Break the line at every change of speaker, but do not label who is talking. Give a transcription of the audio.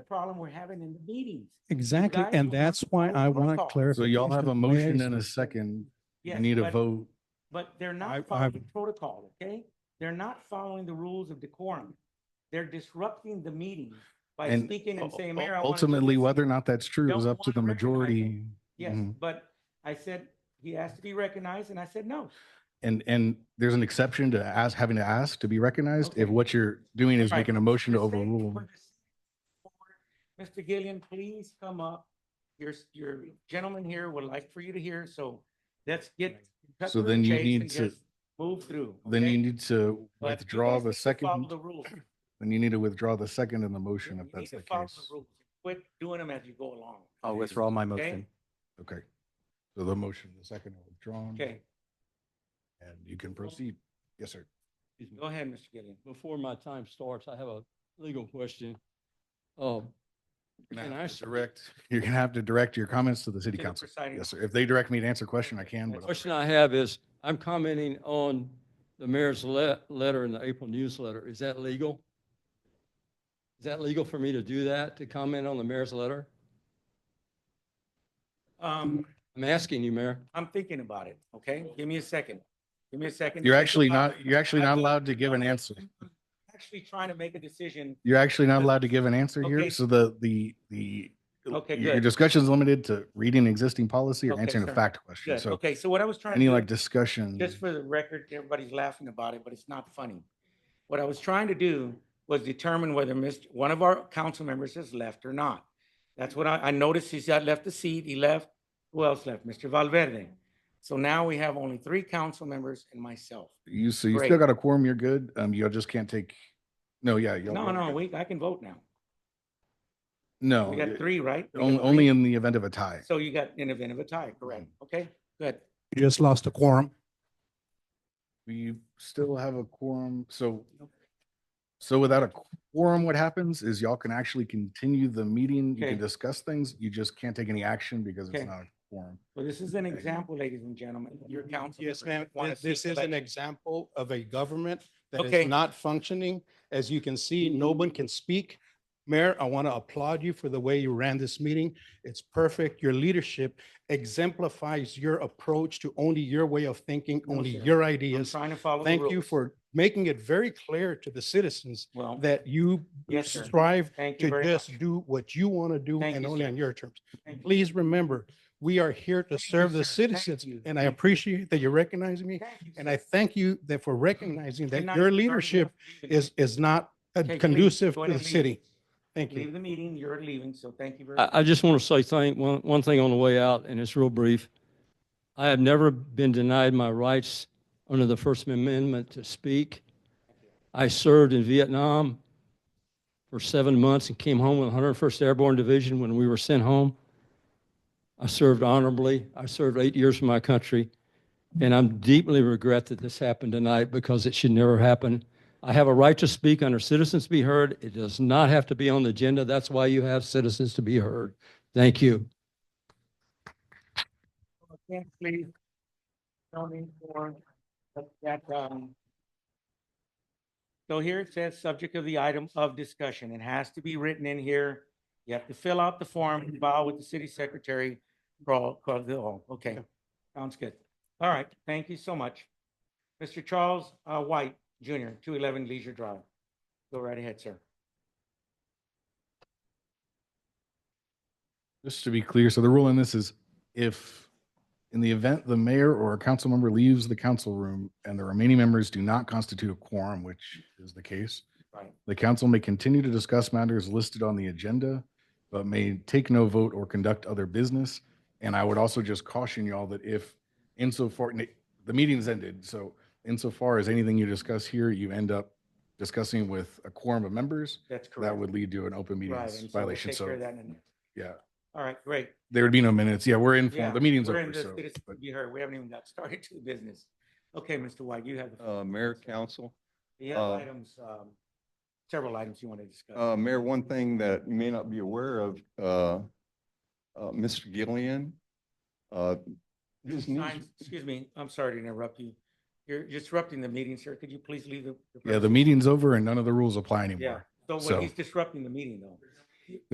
the problem we're having in the meetings.
Exactly,
guys
and
will have
that's why
vote
I
on
want
call.
clarification.
So y'all have a
from the way I
motion and a
understand-
second. We
Yes,
need a
but-
vote.
But they're
I-
not
I've-
following protocol, okay? They're not following the rules of decorum. They're disrupting the meeting by
And
speaking and saying,
u-
Mayor, I want to do
Ultimately,
this."
whether or not that's true is
Don't
up to the
wanna recognize it.
majority.
Yes,
Mhm.
but I said, he asked to be recognized, and I said, no.
And, and there's an exception to ask, having to ask to be recognized if
Okay.
what you're doing is
Right.
making a motion to
For the sake-
overrule.
for the sake of the board, Mr. Gillian, please come up. Your, s- your gentleman here would like for you to hear, so let's get. cut
So
through
then
the
you
chase
need
and
to-
just Move through.
Then
okay?
you need to
But you
withdraw
guys
the
need to follow
second,
the rules.
then you need to withdraw the second in the motion
You
if
need
that's
to
the
follow the
case.
rules. Quit doing them as you go along.
I'll withdraw my motion.
Okay. So the motion, the second are withdrawn.
Okay,
And you can proceed. Yes, sir.
Excuse me.
go ahead, Mr. Gillian.
Before my time starts, I have a legal question. Um,
You're
Can
gonna
I
have
s-
to direct, you're gonna have to direct your comments to the city
To the
council.
presiding
Yes, sir. If they direct me to answer a question, I can, but.
question I have is, I'm commenting on the mayor's le- letter in the April newsletter. Is that legal? Is that legal for me to do that, to comment on the mayor's letter?
Um,
I'm asking you, Mayor.
I'm thinking about it, okay? Give me a second. Give me a second. to
You're
think
actually
about
not,
it.
you're actually
I
not
will-
allowed to give an answer.
Actually trying to make a decision.
You're actually not allowed to give an answer here.
Okay.
So the, the, the.
Okay,
Your
good.
discussion is limited to reading existing policy or
Okay,
answering a
sir.
fact question.
Good,
So
okay, so what I was trying
any
to
like
do,
discussion.
just for the record, everybody's laughing about it, but it's not funny. What I was trying to do was determine whether Mr., one of our council members has left or not. That's what I, I noticed he's got left the seat, he left, who else left? Mr. Valverde. So now we have only three council members and myself.
You, so you
Great.
still got a quorum, you're good. Um, you just can't take, no, yeah. y'all-
No,
y'all
no,
good.
we, I can vote now.
No.
We got
it-
three, right? We got
on- Only in the event of a tie.
three. So you got an event of a tie, correct?
Mm-hmm.
Okay, good.
You just lost a quorum.
We still have a quorum, so. So without a quorum, what happens is y'all can actually continue the meeting. You
Okay.
can discuss things. You just can't take any action because
Okay.
it's not a quorum.
Well, this is an example, ladies and gentlemen, your council.
Yes, ma'am.
members wanna
Th- This
seek
is an
election.
example of a government that
Okay.
is not functioning. As you can see, no one can speak. Mayor, I want to applaud you for the way you ran this meeting. It's perfect. Your leadership exemplifies your approach to only your way of thinking,
No,
only
sir.
your
I'm
ideas.
trying to follow. the
Thank you
rules.
for making it very clear to the citizens
Well,
that you
Yes, sir.
strive
thank you
to
very much.
just do what you want to do
Thank
and
you,
only
sir.
on your terms.
Thank you.
Please remember, we are here to
Thank you,
serve the
sir. Thank
citizens,
you.
and I
Thank you.
appreciate that you recognize me.
Thank you,
And
sir.
I thank you that for recognizing
You're
that
not
your
deserving of
leadership
leaving.
is, is not uh,
Okay, please,
conducive
go
to
ahead and
the
leave.
city. Thank you.
Leave the meeting, you're leaving, so thank you very much.
I, I just want to say thank, one, one thing on the way out, and it's real brief. I have never been denied my rights under the First Amendment to speak. I served in Vietnam for seven months and came home with 101st Airborne Division when we were sent home. I served honorably. I served eight years for my country. And I'm deeply regret that this happened tonight because it should never happen. I have a right to speak under citizens to be heard. It does not have to be on the agenda. That's why you have citizens to be heard. Thank you.
Yes, please. Zoning for that, um. So here it says, subject of the item of discussion. It has to be written in here. You have to fill out the form, and file with the city secretary. Crawl, crawl the hall. Okay, sounds good. All right, thank you so much. Mr. Charles uh, White Jr., two eleven Leisure Drive. Go right ahead, sir.
Just to be clear, so the rule in this is if, in the event the mayor or a council member leaves the council room and the remaining members do not constitute a quorum, which is the case,
Right.
the council may continue to discuss matters listed on the agenda, but may take no vote or conduct other business. And I would also just caution y'all that if insofar, the meeting's ended, so insofar as anything you discuss here, you end up discussing with a quorum of members,
That's correct.
that would lead to an open
Right,
meetings
and so we'll
violation.
take care of
So,
that in a minute.
yeah.
All right, great.
There would be no minutes. Yeah, we're in,
Yeah,
the meeting's
we're in
over,
this-
so.
this-
but-
You heard, we haven't even got started to the business. Okay, Mr. White, you have. the floor.
Uh, Mayor, Council,
You have
uh,
items, um, several items you want to discuss.
uh, Mayor, one thing that you may not be aware of, uh, uh, Mr. Gillian, uh, his news-
Signs- Excuse me, I'm sorry to interrupt you. You're disrupting the meeting, sir. Could you please leave the?
Yeah, the
premises?
meeting's over and none of the rules apply anymore.
Yeah, so
so-
when he's disrupting the meeting though.